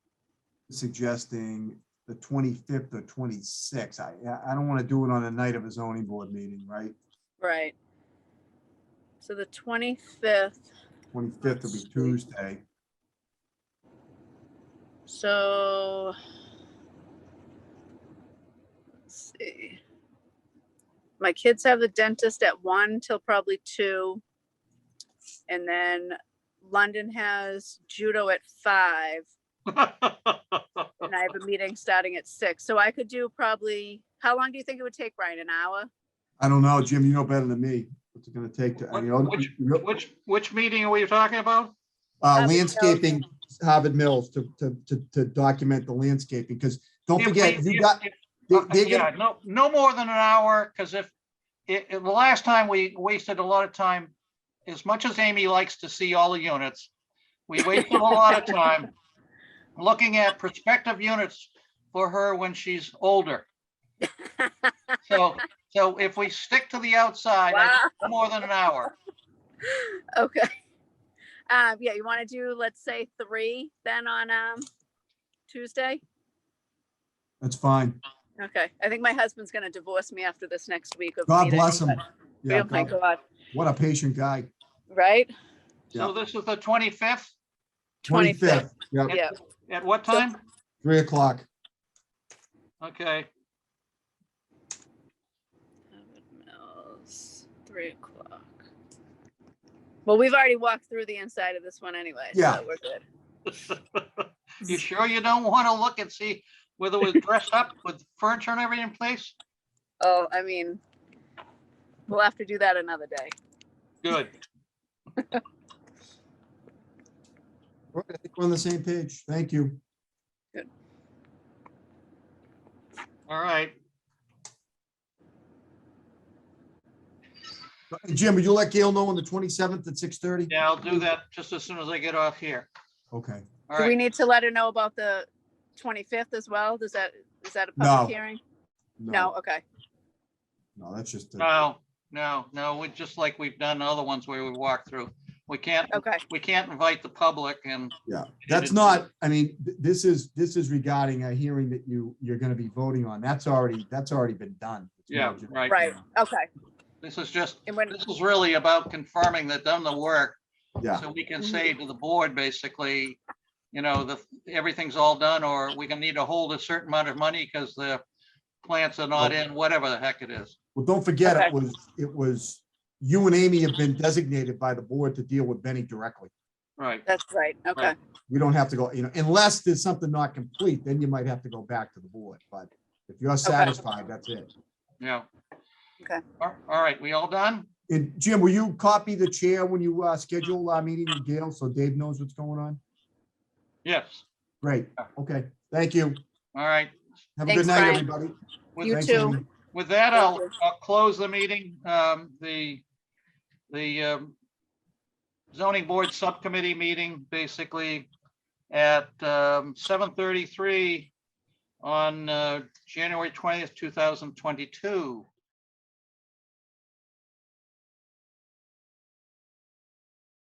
suggesting the twenty-fifth or twenty-sixth. I, I- I don't want to do it on the night of a zoning board meeting, right? Right. So the twenty-fifth, Twenty-fifth will be Sweet. Tuesday. so. let's see. My kids have the dentist at one till probably two. And then London has judo at five and I have a meeting starting at six. So I could do probably, how long do you think it would take, Brian? An hour? I don't know, Jim, you know better than me. What's it gonna take to, you know? Which- Which, which meeting are we talking about? Uh, Harvard Mills. landscaping, Harvard Mills to, to, to, to document the landscaping, because don't If we- forget, you if- got, if- they- uh, they're Yeah, gonna- no, no more than an hour, because if, it, it- the last time we wasted a lot of time, as much as Amy likes to see all the units, we wasted a lot of time looking at prospective units for her when she's older. So, so if we stick to the outside, I think no more than an hour. Okay. Um, yeah, you want to do, let's say, three then on, um, Tuesday? that's fine. Okay, I think my husband's gonna divorce me after this next week of. God meetings, bless him. but- Yeah, Oh my God, God, what a patient guy. right? So this is the 25th, Twenty-fifth, Yeah, yeah. at what time? three o'clock. Okay, Mills, Three o'clock. Well, we've already walked through the inside of this one anyway, Yeah. so we're good. you sure you don't want to look and see whether it was dressed up with furniture and everything in place? Oh, I mean, we'll have to do that another day. Good. All right, I think We're on the same page. Thank you. All right. Jim, would you let Gail know on the twenty-seventh at six thirty? Yeah, I'll do that just as soon as I get off here. Okay, All Do we right. need to let her know about the twenty-fifth as well? Does that, is that a No. public hearing? No, okay, No, that's just, a- No, no, no, we, just like we've done other ones where we walk through. We can't, okay, we can't invite the public and, yeah, that's not, I mean, th- this is, this is regarding a hearing that you, you're gonna be voting on. That's already, that's already been done. yeah, right. right, okay. This is just, And when, this is really about confirming they've done the work. Yeah, So we can say to the board, basically, you know, the, everything's all done, or we can need to hold a certain amount of money because the plants are not in, whatever the heck it is. well, don't forget, it Okay. was, it was, you and Amy have been designated by the board to deal with Benny directly. Right. that's right, okay, Right. We don't have to go, you know, unless there's something not complete, then you might have to go back to the board, but if you're satisfied, that's it. Yeah. Okay. All all right, we all done? And Jim, will you copy the chair when you uh, schedule our meeting with Gail so Dave knows what's going on? Yes. Great, okay, thank you. All right. Have a Thanks, good night, Brian. everybody. With You Thanks, too. Amy. With that, Thank I'll, you. I'll close the meeting. Um, the, the, um, zoning board subcommittee meeting basically at, um, seven thirty-three on, uh, January twentieth, two thousand twenty-two.